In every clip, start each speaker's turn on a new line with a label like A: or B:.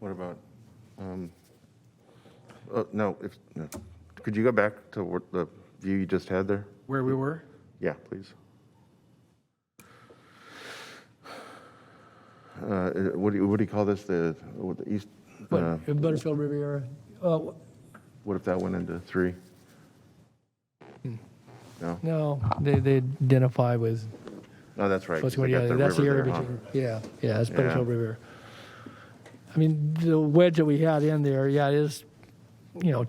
A: What about, um, uh, no, if, no. could you go back to what the view you just had there?
B: Where we were?
A: Yeah, please. Uh, What do you, what do you call this, the, what the east, uh,
C: But Butterfield Riviera, uh,
A: what if that went into three?
C: Hmm.
A: No,
C: no, they, they identify with
A: no, that's right. 'cause
C: That's
A: they got the
C: that's the
A: river
C: area
A: there, huh?
C: between, yeah, yeah, that's
A: Yeah.
C: Butterfield River. I mean, the wedge that we had in there, yeah, it is, you know,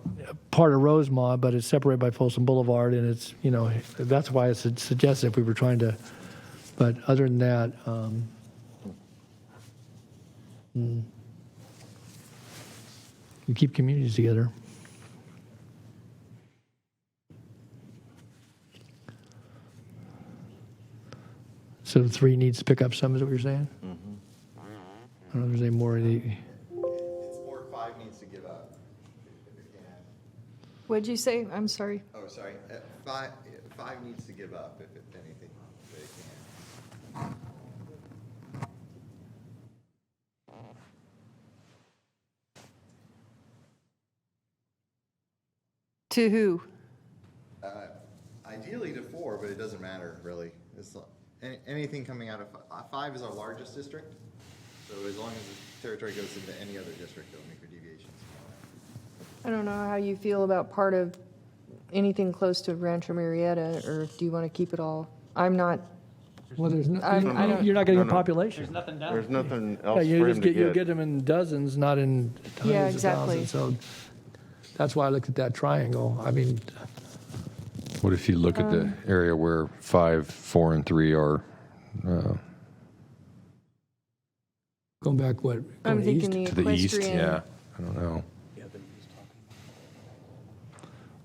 C: part of Rosemont, but it's separated by Folsom Boulevard, and it's, you know, that's why it's suggested if we were trying to, but other than that, um, mm, you keep communities together. So three needs to pick up some, is what you're saying?
A: Mm-hmm.
C: I don't know if there's any more, any-
D: It's or five needs to give up. And-
E: What'd you say? I'm sorry.
D: Oh, sorry, uh, five, five needs to give up if if anything they can.
E: To who?
D: Ideally to four, but it doesn't matter really. It's, not- any- anything coming out of, fi- uh, five is our largest district. So as long as the territory goes into any other district, it'll make your deviations.
E: I don't know how you feel about part of anything close to Rancho Marietta, or do you want to keep it all? I'm not,
C: well, there's, no-
E: I- I don't-
C: you're not getting
A: No,
C: a
A: no.
C: population.
A: There's nothing
C: Yeah,
A: else
C: you
A: for him
C: just get, you
A: to
C: get
A: get.
C: them in dozens, not in
E: Yeah,
C: hundreds of
E: exactly.
C: thousands. So that's why I looked at that triangle. I mean,
F: What if you look at the
E: Um,
F: area where five, four, and three are? Uh,
C: going back, what,
E: I'm
C: going
E: thinking
C: east?
E: the
F: to the east? Yeah.
E: equestrian.
F: I don't know.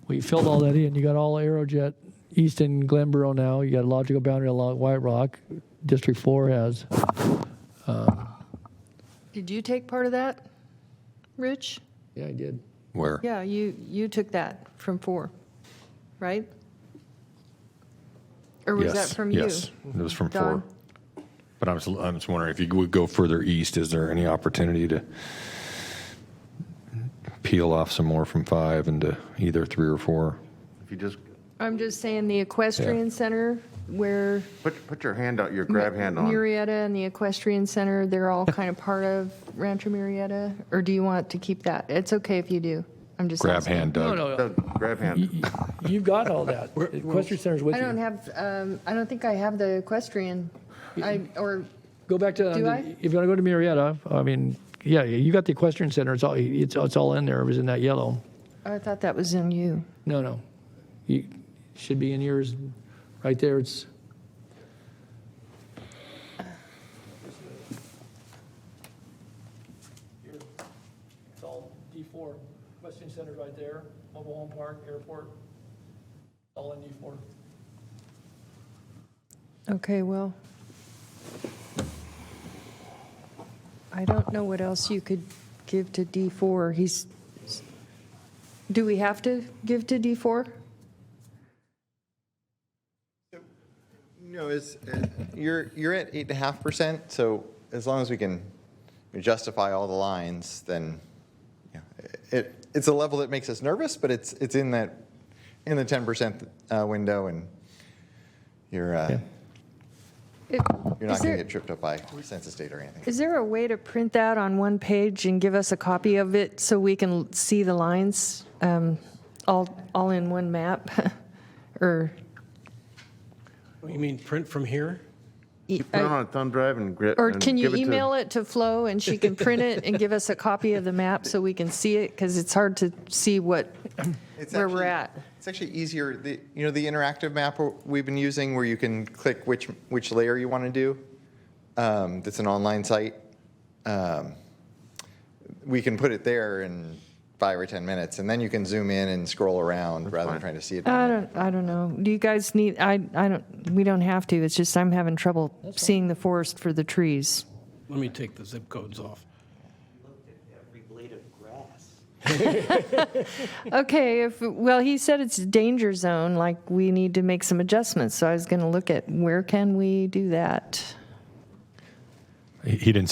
C: We filled all that in. You got all Aerojet east in Glenboro now. You got a logical boundary along White Rock. District four has.
E: Did you take part of that, Rich?
C: Yeah, I did.
F: Where?
E: Yeah, you, you took that from four, right? Or was that
F: yes.
E: from you?
F: yes. It was from
E: Don?
F: four. But I'm just, I'm just wondering if you would go further east, is there any opportunity to peel off some more from five into either three or four?
A: If you just,
E: I'm just saying the equestrian center where
A: put, put your hand out, your grab hand on.
E: Murrieta and the equestrian center, they're all kind of part of Rancho Murrieta? Or do you want to keep that? It's okay if you do. I'm just
F: Grab
E: asking.
F: hand,
C: No,
F: Doug.
C: no,
A: Doug, Grab hand.
C: you- you've got all that. Equestrian Center's with
E: I don't
C: you.
E: have, um, I don't think I have the equestrian, I, or,
C: Go back to, um,
E: Do I?
C: if you want to go to Marietta, I mean, yeah, you got the Equestrian Center. It's all, it's, it's all in there. It was in that yellow.
E: I thought that was in you.
C: No, no. You should be in yours, right there. It's it's all D four, Western Center right there, mobile home park, airport, all in D four.
E: Okay, well. I don't know what else you could give to D4. He's, do we have to give to D4?
D: No, it's, uh, you're, you're at eight and a half percent, so as long as we can justify all the lines, then, you know, it, it's a level that makes us nervous, but it's, it's in that, in the ten percent uh, window, and you're, uh,
E: It-
D: you're
E: Is
D: not gonna
E: there,
D: get tripped up by census data or anything.
E: is there a way to print that on one page and give us a copy of it so we can see the lines um, all, all in one map? Or,
G: You mean print from here?
E: e-
A: Put it on a thumb drive and grab.
E: or can you email it to Flo and she can print it and give us a copy of the map so we can see it? Because it's hard to see what,
D: It's
E: where we're
D: actually-
E: at.
D: It's actually easier, the, you know, the interactive map w- we've been using where you can click which, which layer you want to do. um, That's an online site. um, We can put it there in five or 10 minutes and then you can zoom in and scroll around rather
A: fine.
D: than trying to see it.
E: I don't, I don't know. Do you guys need, I, I don't, we don't have to. It's just I'm having trouble seeing the forest for the trees.
G: Let me take the zip codes off.
H: every blade of grass.
E: Okay, if, well, he said it's a danger zone, like we need to make some adjustments. So I was going to look at where can we do that?
F: He he didn't